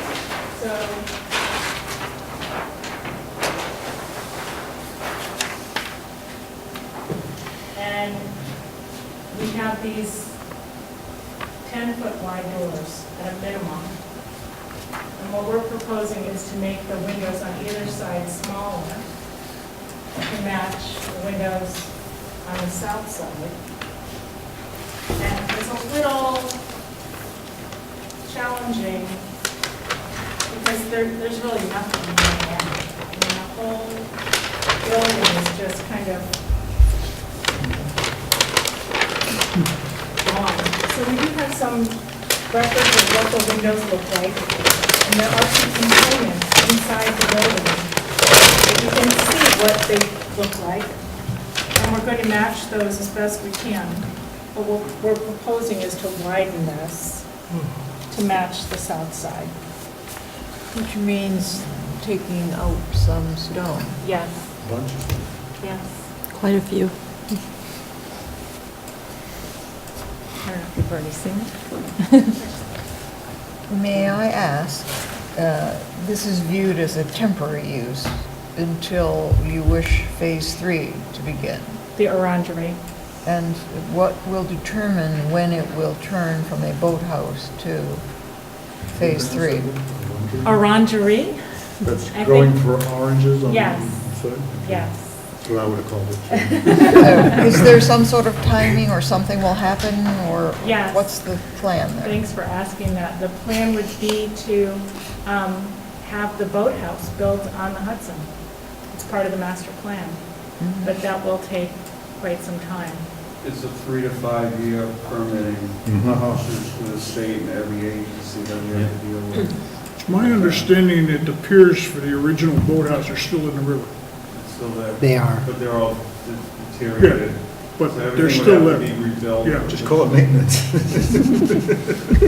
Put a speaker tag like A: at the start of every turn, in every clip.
A: so. And we have these ten-foot wide doors at a minimum. And what we're proposing is to make the windows on either side smaller to match the windows on the south side. And it's a little challenging because there, there's really nothing in there. I mean, the whole building is just kind of gone. So we do have some records of what the windows look like. And there are some components inside the building. that You can see what they look like. And we're going to match those as best we can. But what we're proposing is to widen this to match the south side.
B: Which means taking out some stone.
A: Yes,
C: Bunch of
A: yes.
D: Quite a few.
B: I don't know if you've already seen it. May I ask, uh, this is viewed as a temporary use until you wish Phase 3 to begin?
A: The orangery.
B: And what will determine when it will turn from a boathouse to Phase 3?
A: Orangery?
C: That's
A: I
C: growing
A: think-
C: for oranges on the
A: Yes.
C: side?
A: Yes.
C: That's what I would have called it. too.
B: Uh, Is there some sort of timing or something will happen, or
A: Yes.
B: what's the plan there?
A: Thanks for asking that. The plan would be to um, have the boathouse built on the Hudson. It's part of the master plan,
B: Mm-hmm.
A: but that will take quite some time.
E: It's a three to five year permitting
F: Mm.
C: Mhm.
A: Mm-hmm.
E: process for the state and every agency that we have to deal with.
F: It's my understanding that the piers for the original boathouse are still in the river,
E: It's still there.
G: They are.
E: But they're all deteriorated.
F: but
E: So
F: they're still
E: Everything would have to
F: there.
E: be rebuilt.
F: Yeah.
C: Just call it maintenance.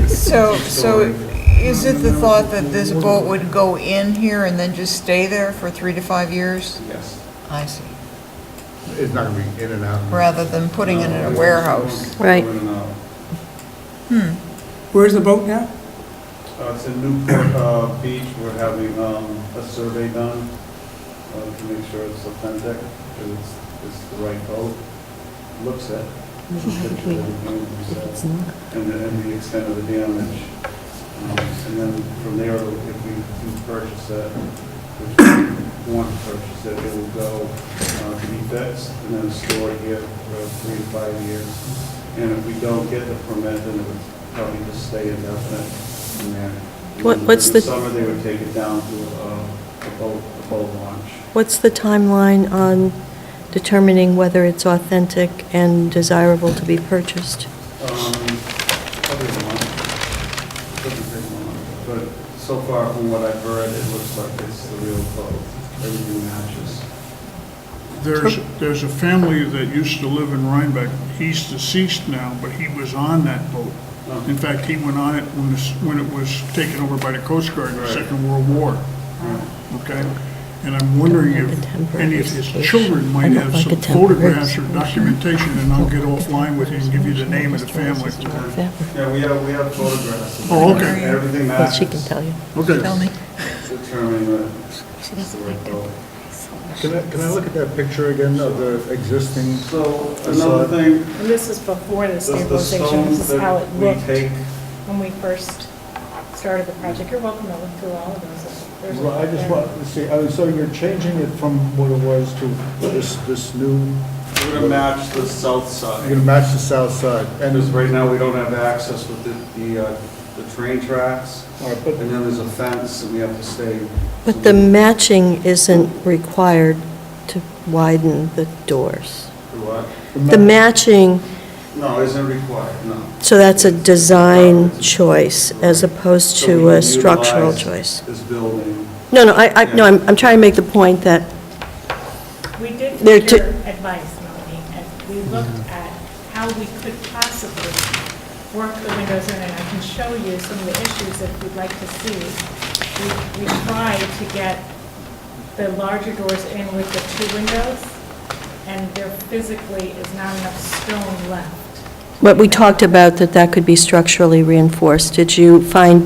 B: So, so is it the thought that this boat would go in here and then just stay there for three to five years?
E: Yes.
B: I see.
C: It's not going to be in and out.
B: Rather than putting it in a warehouse. Hmm.
D: Right.
E: Uh, Going in and out.
G: Where's the boat now?
E: Uh, It's in Newport uh, Beach, we're having um, a survey done uh, to make sure it's authentic, because it's, it's the right boat, looks it. Picture of everything that was said, And the, and the extent of the damage. Um, And then from there, if we do purchase it, which we want to purchase it, it will go uh, to be fixed and then stored here for three to five years. And if we don't get the permit, then it would probably just stay indefinite in there.
D: What- what's the-
E: In summer, they would take it down to uh, a boat, a boat launch.
D: What's the timeline on determining whether it's authentic and desirable to be purchased?
E: Um, Probably a month, doesn't take long. But so far, from what I've heard, it looks like it's the real boat. Everything matches.
F: There's, there's a family that used to live in Rhinebeck, he's deceased now, but he was on that boat. In fact, he went on it when this, when it was taken over by the Coast Guard in the
E: Right.
F: Second World War,
E: Yeah.
F: okay? And I'm wondering
D: Like a
F: if
D: temporary
F: any of his
D: station.
F: children
D: I
F: might
D: don't
F: have
D: like a
F: some
D: temporary
F: photographs or
D: station.
F: documentation, and I'll get offline with you and give you the name of the family.
E: Yeah, we have, we have photographs. of
F: Oh,
E: it.
F: okay.
E: Everything
D: Well,
E: matches.
D: she can tell you.
F: Okay.
B: Tell me.
E: Determining that it's the right boat.
C: Can I, can I look at that picture again of the existing?
E: So
C: Facade.
E: another thing,
A: And this is before the
E: the the
A: stabilization,
E: stone
A: this is how it
E: that we
A: looked.
E: take
A: when we first started the project. You're welcome to look through all of those. There's a-
C: Well, I just want to see, oh, so you're changing it from what it was to this, this new,
E: We're gonna match the south
C: you're
E: side.
C: going to match the south side.
E: And
C: And
E: as
C: is,
E: right now, we don't have access with the, the, uh, the train tracks.
C: all right,
E: And
C: but
E: then there's a fence and we have to stay.
D: But the matching isn't required to widen the doors.
E: The what?
D: The matching,
E: No, isn't required, no.
D: so that's a design choice as opposed
E: So we
D: to a
E: can
D: structural
E: utilize
D: choice.
E: This building.
D: No, no, I, I, no, I'm, I'm trying to make the point that,
A: We did
D: There are
A: take your
D: two-
A: advice, Melanie, and we looked at how we could possibly work the windows in, and I can show you some of the issues that you'd like to see. We we tried to get the larger doors in with the two windows, and there physically is not enough stone left.
D: what we talked about, that that could be structurally reinforced. Did you find